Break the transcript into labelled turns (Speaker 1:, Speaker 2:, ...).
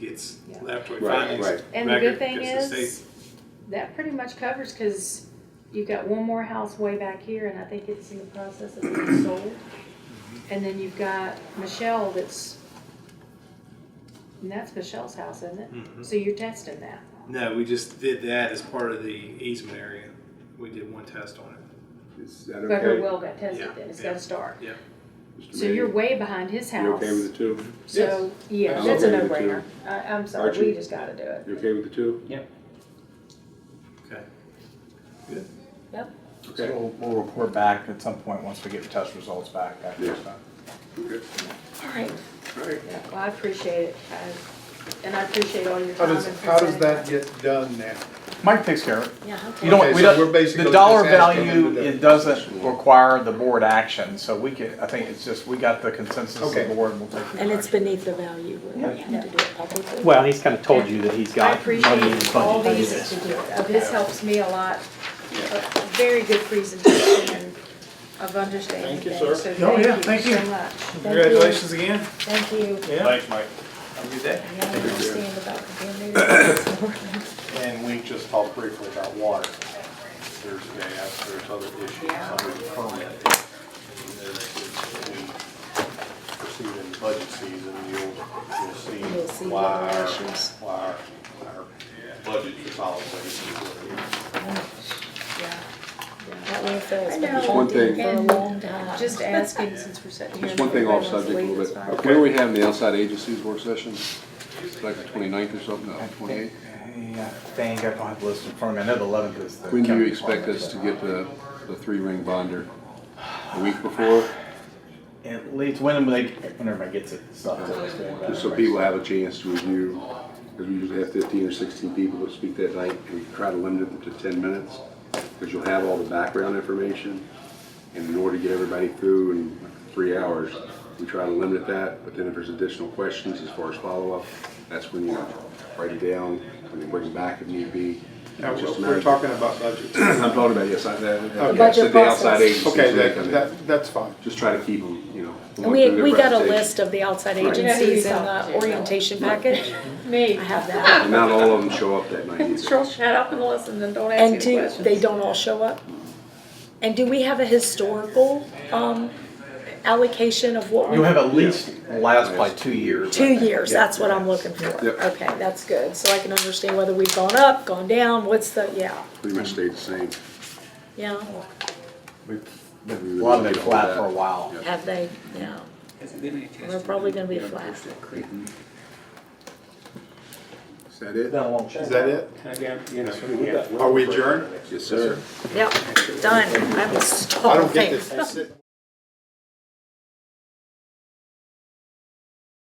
Speaker 1: gets
Speaker 2: Yeah.
Speaker 1: laboratory
Speaker 3: Right,
Speaker 1: findings.
Speaker 3: right.
Speaker 2: And the good
Speaker 1: record
Speaker 2: thing
Speaker 1: gets the
Speaker 2: is, that pretty much covers, cause you've got one more house way back here, and I think it's in the process of being sold.
Speaker 3: Mm-hmm.
Speaker 2: And then you've got Michelle that's, and that's Michelle's house, isn't it?
Speaker 3: Mm-hmm.
Speaker 1: Mhm.
Speaker 2: So you're testing that.
Speaker 1: No, we just did that as part of the easement area. We did one test on it.
Speaker 3: Is that
Speaker 2: But her
Speaker 3: okay?
Speaker 2: well got tested
Speaker 1: Yeah,
Speaker 2: then, it's
Speaker 1: yeah.
Speaker 2: gotta start.
Speaker 3: Mr.
Speaker 2: So you're
Speaker 3: Mayor?
Speaker 2: way behind his
Speaker 3: You
Speaker 2: house.
Speaker 3: okay with the two?
Speaker 2: So, yeah,
Speaker 3: I'm
Speaker 2: that's a
Speaker 3: okay with it,
Speaker 2: no-brainer. I, I'm sorry,
Speaker 3: Archie?
Speaker 2: we just gotta do it.
Speaker 3: You okay with the two?
Speaker 1: Okay.
Speaker 3: Okay.
Speaker 4: So we'll we'll report back at some point, once we get the test results back, that kind of
Speaker 3: Yeah.
Speaker 4: stuff.
Speaker 3: Okay.
Speaker 2: All right,
Speaker 3: All right.
Speaker 2: yeah, well, I appreciate it, I- and I appreciate all your
Speaker 5: How
Speaker 2: time.
Speaker 5: does,
Speaker 2: and
Speaker 5: how does that
Speaker 2: perspective.
Speaker 5: get done now?
Speaker 4: Mike takes care of it.
Speaker 2: Yeah, okay.
Speaker 4: You don't,
Speaker 5: Okay,
Speaker 4: we
Speaker 5: so we're
Speaker 4: don't,
Speaker 5: basically
Speaker 4: the dollar
Speaker 5: just asking him
Speaker 4: value,
Speaker 5: to do-
Speaker 4: it doesn't require the board action, so we could, I think it's just, we got the consensus of the
Speaker 5: Okay.
Speaker 4: board and we'll take
Speaker 6: And
Speaker 4: it.
Speaker 6: it's beneath the value, we
Speaker 4: Yeah.
Speaker 6: have to do it publicly.
Speaker 7: Well, he's kind of told you that he's
Speaker 2: I
Speaker 7: got money in his
Speaker 2: appreciate all
Speaker 7: budget to do
Speaker 2: these,
Speaker 7: this.
Speaker 2: uh, this helps me a lot, A very good presentation and of understanding
Speaker 8: Thank you,
Speaker 2: things,
Speaker 8: sir.
Speaker 2: so thank
Speaker 1: Oh, yeah, thank
Speaker 2: you
Speaker 1: you.
Speaker 2: so much.
Speaker 1: Congratulations again.
Speaker 6: Thank you.
Speaker 1: Yeah.
Speaker 8: Thanks, Mike.
Speaker 1: Have a good day.
Speaker 6: Yeah, I understand about the community.
Speaker 8: And we just talked briefly about water. There's gas, there's other issues under the permit. And then we Proceed in budget season, you'll,
Speaker 6: You'll
Speaker 8: you'll
Speaker 6: see
Speaker 8: see why
Speaker 6: the
Speaker 8: our,
Speaker 6: issues.
Speaker 8: why our, our budget is always what it
Speaker 2: Yeah, yeah.
Speaker 6: That landfill's
Speaker 2: I
Speaker 6: been
Speaker 2: know.
Speaker 3: One
Speaker 6: haunted
Speaker 3: thing.
Speaker 6: for a long time.
Speaker 2: Just asking, since we're sitting here.
Speaker 3: Just one thing off
Speaker 2: and everybody
Speaker 3: subject a little
Speaker 2: wants
Speaker 3: bit.
Speaker 2: to leave, it's
Speaker 3: When are we having the outside agencies work session? It's Like the 29th or something, no, twenty-eighth?
Speaker 4: Yeah, dang, I don't have the list in front of me, I know the eleventh is the.
Speaker 3: When do you
Speaker 4: county
Speaker 3: expect
Speaker 4: department,
Speaker 3: us to
Speaker 4: but-
Speaker 3: get the, the three-ring binder? A week before?
Speaker 4: At least when they, when everybody gets it, so.
Speaker 3: Just so people have a chance to review, because we usually have fifteen or sixteen people that speak that night, and we try to limit it to ten minutes, because you'll have all the background information, and in order to get everybody through in three hours, we try to limit that, but then if there's additional questions as far as follow-up, that's when you write it down, and then bring it back if need be.
Speaker 5: Now,
Speaker 3: It's just
Speaker 5: we're-
Speaker 3: a matter
Speaker 5: we're
Speaker 3: of-
Speaker 5: talking about budget.
Speaker 3: I'm talking about, yes, I, that,
Speaker 5: Okay.
Speaker 3: that's
Speaker 6: Budget
Speaker 3: the outside
Speaker 6: process.
Speaker 3: agencies.
Speaker 5: Okay,
Speaker 3: that
Speaker 5: that,
Speaker 3: come in.
Speaker 5: that, that's fine.
Speaker 3: Just try to keep them, you know.
Speaker 6: And
Speaker 3: going
Speaker 6: we,
Speaker 3: through their
Speaker 6: we got a
Speaker 3: presentation.
Speaker 6: list of the outside
Speaker 3: Right.
Speaker 6: agencies in
Speaker 2: Yeah,
Speaker 6: the
Speaker 2: he's-
Speaker 6: orientation package.
Speaker 2: Me.
Speaker 6: I have that.
Speaker 3: And not all of them show up that night either.
Speaker 2: Girl, shut up and listen and don't
Speaker 6: And
Speaker 2: ask any
Speaker 6: do,
Speaker 2: questions.
Speaker 6: they don't all show up? And do we have a historical, um, allocation of what we?
Speaker 4: You'll have at least last by two years.
Speaker 6: Two years, that's what I'm looking for.
Speaker 3: Yep.
Speaker 6: Okay, that's good, so I can understand whether we've gone up, gone down, what's the, yeah,
Speaker 3: Pretty much stayed the same.
Speaker 6: yeah,
Speaker 4: We've been- A lot of it flat for a while.
Speaker 3: Yeah.
Speaker 6: have they, yeah. We're probably gonna be flat.
Speaker 3: Is that it?
Speaker 5: Is that it?
Speaker 8: is.
Speaker 5: Are we adjourned?
Speaker 3: Yes, sir.
Speaker 6: Yep, done, I was
Speaker 5: I don't
Speaker 6: stalling.
Speaker 5: get this.